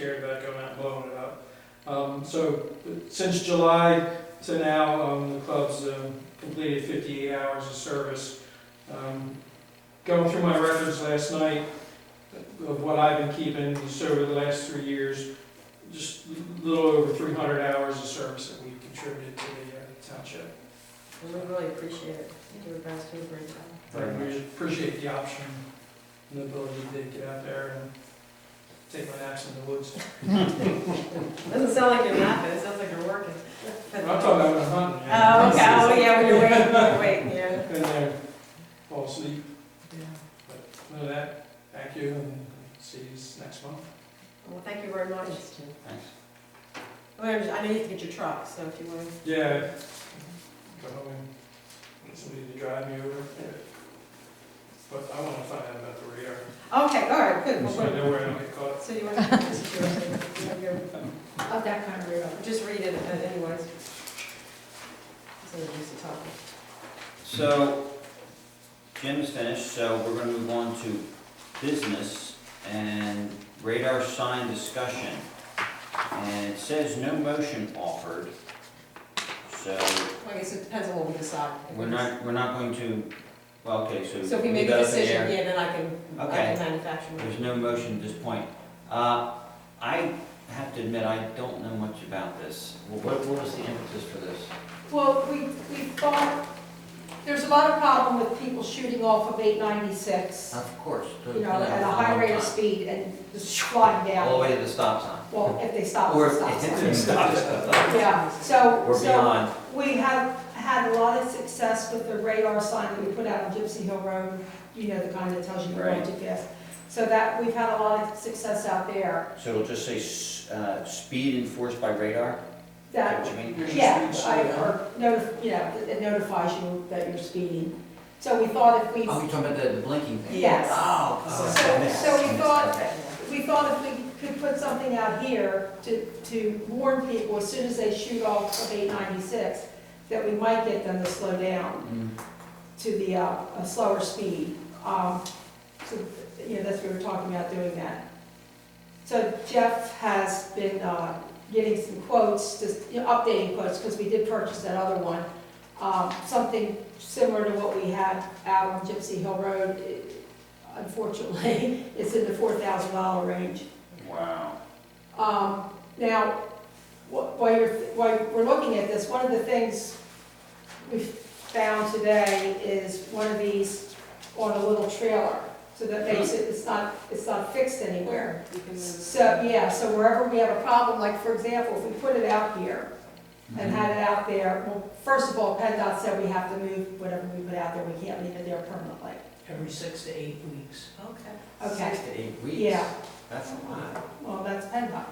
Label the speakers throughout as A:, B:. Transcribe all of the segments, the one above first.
A: scared about going out and blowing it up. Um, so since July to now, um, the club's, um, completed fifty-eight hours of service. Um, Going through my records last night of what I've been keeping just over the last three years, just a little over three hundred hours of service that we've contributed to the uh, township.
B: And we really appreciate it. You do a best we bring
A: But we appreciate the option and the ability to get out there and take my naps in the woods.
B: Doesn't sound like you're laughing, it sounds like you're working.
A: I'm talking about when I'm hunting. yeah.
B: Oh, okay, oh, yeah, when you're waiting, when you're waiting, yeah.
A: Been there, fall asleep, none of that, thank you, and see you next month.
B: Well, thank you very much.
C: Thanks.
B: Well, I know you have to get your truck, so if you want to.
A: Yeah. Go home and get somebody to drive me over. But I wanna find out about the radar,
B: Okay, all right, good.
A: so I
B: Well,
A: know where I don't get caught.
B: what- So you want to, this is yours, you have your-
D: Of that kind of river.
B: just read it uh, anyways. So you just talk.
C: So, Jim is finished, so we're gonna move on to business and radar sign discussion. And it says no motion offered, so
B: I guess it depends on what we decide.
C: we're not, we're not going to, well, okay, so.
B: So if we make
C: leave
B: a
C: that up in the air.
B: decision, yeah, then I can, I
C: Okay.
B: can manufacture. one.
C: There's no motion at this point. Uh, I have to admit, I don't know much about this. What, what was the impetus for this?
E: Well, we, we thought, there's a lot of problem with people shooting off of eight ninety-six,
C: Of course.
E: you know, at a high rate of speed and just flying
C: All the
E: down.
C: way to the stop sign.
E: Well, if they stop,
C: Or
E: they
C: if
E: stop.
C: if it stops,
E: Yeah, so,
C: or
E: so
C: beyond.
E: we have had a lot of success with the radar sign that we put out on Gypsy Hill Road, you know, the kind that tells you you're going too fast. So that, we've had a lot of success out there,
C: So it'll just say, s- uh, speed enforced by radar? Is that
E: that,
C: what you mean?
E: yeah, I, or notif, you know, it notifies you that you're speeding. So we thought if we
C: Oh, you're talking about the, the blinking thing?
E: Yes.
C: Oh. oh,
E: So-
C: I missed-
E: so we
C: I missed
E: thought-
C: that.
E: We thought if we could put something out here to, to warn people as soon as they shoot off of eight ninety-six, that we might get them to slow down
C: Mm,
E: to the, uh, a slower speed. Um, so, you know, that's what we were talking about doing that. So Jeff has been, uh, getting some quotes, just, you know, updating quotes, because we did purchase that other one. Um, something similar to what we had out on Gypsy Hill Road, It- unfortunately, it's in the four thousand dollar range.
C: Wow.
E: Um, Now, wh- while you're, while we're looking at this, one of the things we found today is one of these on a little trailer. So that makes it, it's not, it's not fixed anywhere.
B: You can move.
E: So, yeah, so wherever we have a problem, like for example, if we put it out here
C: Hmm.
E: and had it out there, well, first of all, PennDOT said we have to move whatever we put out there, we can't leave it there permanently.
F: every six to eight weeks.
B: Okay.
E: Okay,
C: Six to eight weeks?
E: yeah,
C: That's a lot.
E: well, that's PennDOT,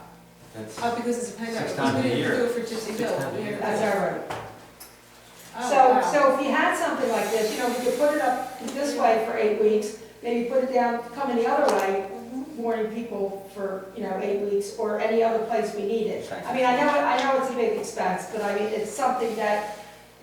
C: That's,
B: Oh, because it's a pen
C: Six
B: drive.
C: times a
B: We
C: year.
B: didn't do it for Gypsy
C: Six
B: Hill.
C: times a
B: We
C: year.
B: had-
E: that's our road.
B: Oh,
E: So,
B: wow.
E: so if you had something like this, you know, we could put it up this way for eight weeks, maybe put it down, coming the other way, warning people for, you know, eight weeks, or any other place we need it. I mean, I know, I know it's a big expense, but I mean, it's something that,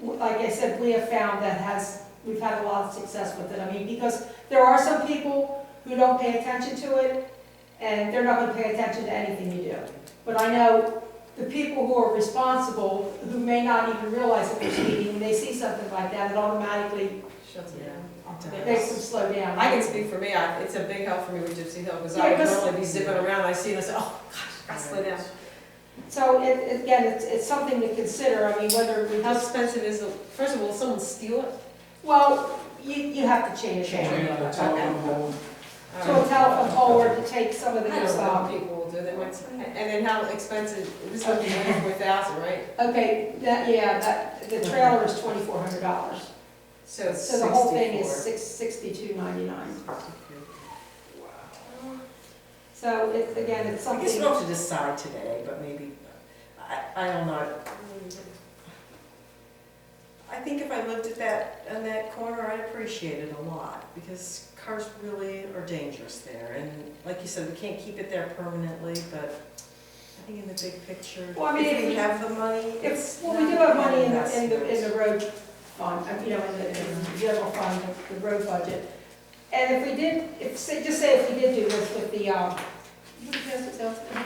E: like I said, we have found that has, we've had a lot of success with it. I mean, because there are some people who don't pay attention to it, and they're not gonna pay attention to anything you do. But I know the people who are responsible, who may not even realize that they're speeding, when they see something like that, it automatically
B: Shuts it down.
E: makes them slow down.
B: I can speak for me, I, it's a big help for me with Gypsy Hill, because I
E: Yeah,
B: would
E: 'cause-
B: normally be zipping around, I see it, I say, oh, gosh, gotta slow down.
E: So it, it- again, it's, it's something to consider, I mean, whether we
B: How
E: just,
B: expensive is it, first of all, will someone steal it?
E: well, you, you have to change it.
A: Chain on the telephone pole.
E: To a telephone pole or to take some of the
B: I
E: good
B: don't know what
E: stuff.
B: people will do, they might, say- and then how expensive, this would be four thousand, right?
E: Okay, that, yeah, that, the trailer is twenty-four hundred dollars.
B: So it's
E: So the whole thing is
B: sixty-four.
E: six, sixty-two ninety-nine. So it's, again, it's
F: I
E: something.
F: guess we don't have to decide today, but maybe, I, I don't know.
B: I think if I lived at that, on that corner, I'd appreciate it a lot, because cars really are dangerous there, and like you said, we can't keep it there permanently, but I think in the big picture,
E: Well, I mean,
B: if
E: if
B: we
E: we-
B: have the money, it's.
E: If, well, we do have money in the, in the,
B: investment.
E: in the road fund, uh, you know, in the, in the general fund, the- the road budget. And if we did, if, say, just say if we did do this with the, um, what did you guys say,